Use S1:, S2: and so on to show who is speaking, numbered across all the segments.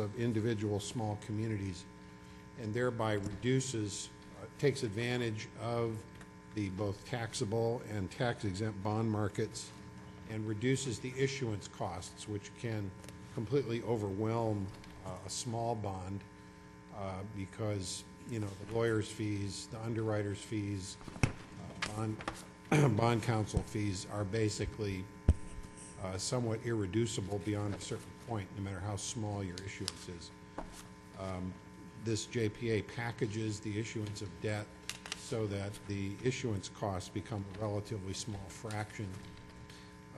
S1: of individual small communities, and thereby reduces, uh, takes advantage of the both taxable and tax-exempt bond markets, and reduces the issuance costs, which can completely overwhelm uh, a small bond uh, because, you know, the lawyer's fees, the underwriter's fees, uh, bond, bond counsel fees are basically uh, somewhat irreducible beyond a certain point, no matter how small your issuance is. Um, This JPA packages the issuance of debt so that the issuance costs become a relatively small fraction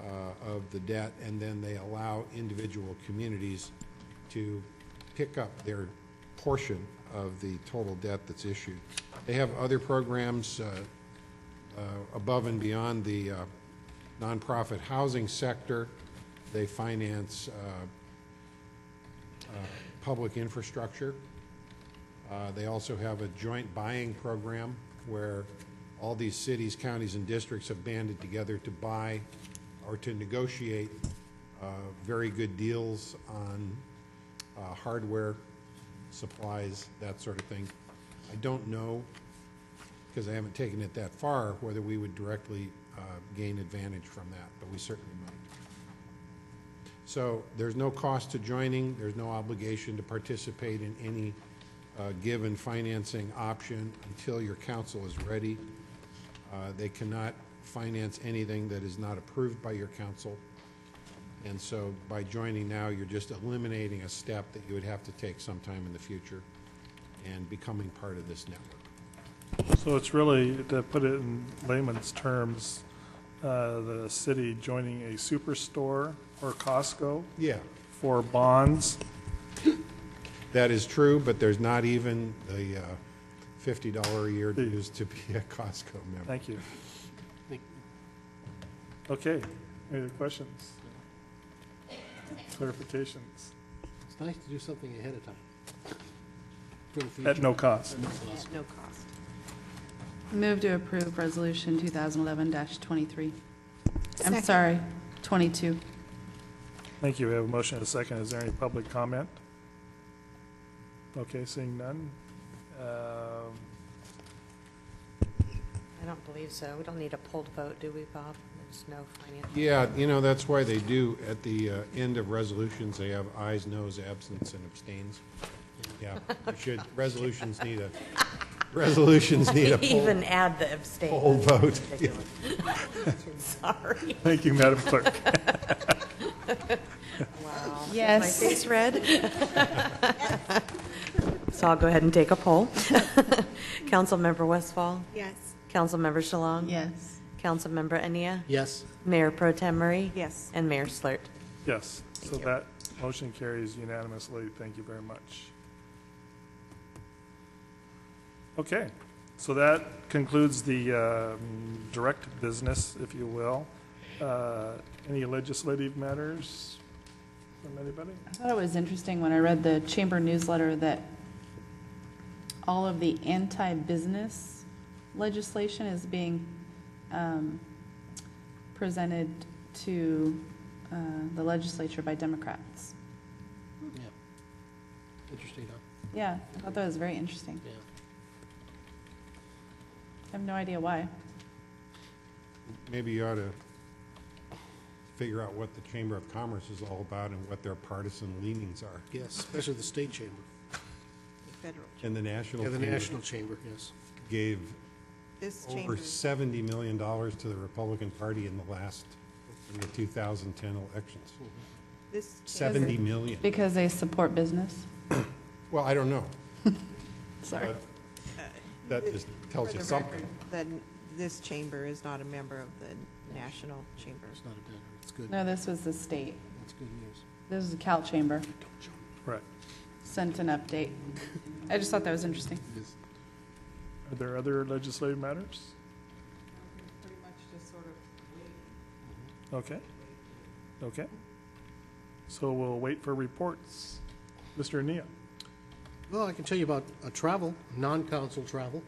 S1: uh, of the debt, and then they allow individual communities to pick up their portion of the total debt that's issued. They have other programs uh, uh, above and beyond the uh, nonprofit housing sector. They finance uh, public infrastructure. Uh, They also have a joint buying program where all these cities, counties, and districts have banded together to buy or to negotiate uh, very good deals on uh, hardware, supplies, that sort of thing. I don't know, because I haven't taken it that far, whether we would directly uh, gain advantage from that, but we certainly might. So there's no cost to joining, there's no obligation to participate in any uh, given financing option until your council is ready. Uh, They cannot finance anything that is not approved by your council. And so by joining now, you're just eliminating a step that you would have to take sometime in the future and becoming part of this network.
S2: So it's really, to put it in layman's terms, uh, the city joining a superstore or Costco
S1: Yeah,
S2: for bonds.
S1: that is true, but there's not even the uh, $50 a year dues to be a Costco member.
S2: Thank you. Okay, any other questions? Clarifications?
S3: It's nice to do something ahead of time. For the future.
S2: At no cost.
S4: At no cost. Move to approve Resolution 2011-23. I'm
S5: Second.
S4: sorry, 22.
S2: Thank you. We have a motion and a second. Is there any public comment? Okay, seeing none. Um,
S6: I don't believe so. We don't need a polled vote, do we, Bob? There's no financial.
S1: Yeah, you know, that's why they do, at the uh, end of resolutions, they have ayes, noes, absence, and abstains. Yeah, you should, resolutions need a, resolutions need a poll-
S6: Even add the abstain.
S1: poll vote. Yeah.
S6: Ridiculous. Sorry.
S2: Thank you, Madam Clerk.
S6: Wow.
S4: Yes.
S5: Face red?
S6: So I'll go ahead and take a poll. Councilmember Westfall?
S5: Yes.
S6: Councilmember Shalong?
S4: Yes.
S6: Councilmember Ania?
S3: Yes,
S6: Mayor Pro Tem Murray?
S5: Yes.
S6: And Mayor Slurt.
S2: Yes, so that motion carries unanimously. Thank you very much. Okay, so that concludes the um, direct business, if you will. Uh, Any legislative matters from anybody?
S4: I thought it was interesting when I read the Chamber newsletter that all of the anti-business legislation is being um, presented to uh, the legislature by Democrats.
S3: yeah. Interesting, huh?
S4: Yeah, I thought that was very interesting.
S3: Yeah.
S4: I have no idea why.
S1: Maybe you ought to figure out what the Chamber of Commerce is all about and what their partisan leanings are,
S3: Yes, especially the state chamber,
S5: Federal.
S1: and the National
S3: yeah, the
S1: Chamber
S3: national chamber, yes.
S1: gave
S5: This
S1: over
S5: chamber,
S1: $70 million to the Republican Party in the last, in the 2010 elections.
S5: this chamber,
S1: 70 million.
S4: Because they support business?
S1: Well, I don't know.
S4: Sorry.
S1: That just
S5: for
S1: tells you
S5: the
S1: something.
S5: record, then this chamber is not a member of the National Chamber.
S3: It's not a bad, it's good,
S4: No, this was the state.
S3: that's good news.
S4: This is the Cal Chamber.
S2: Right.
S4: Sent an update. I just thought that was interesting.
S3: Yes.
S2: Are there other legislative matters?
S5: Pretty much just sort of
S2: Okay, okay. So we'll wait for reports. Mr. Nia?
S3: Well, I can tell you about uh, travel, non-council travel.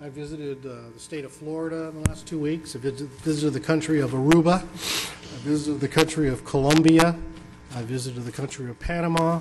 S3: I visited uh, the state of Florida in the last two weeks. I visit- visited the country of Aruba. I visited the country of Colombia. I visited the country of Panama.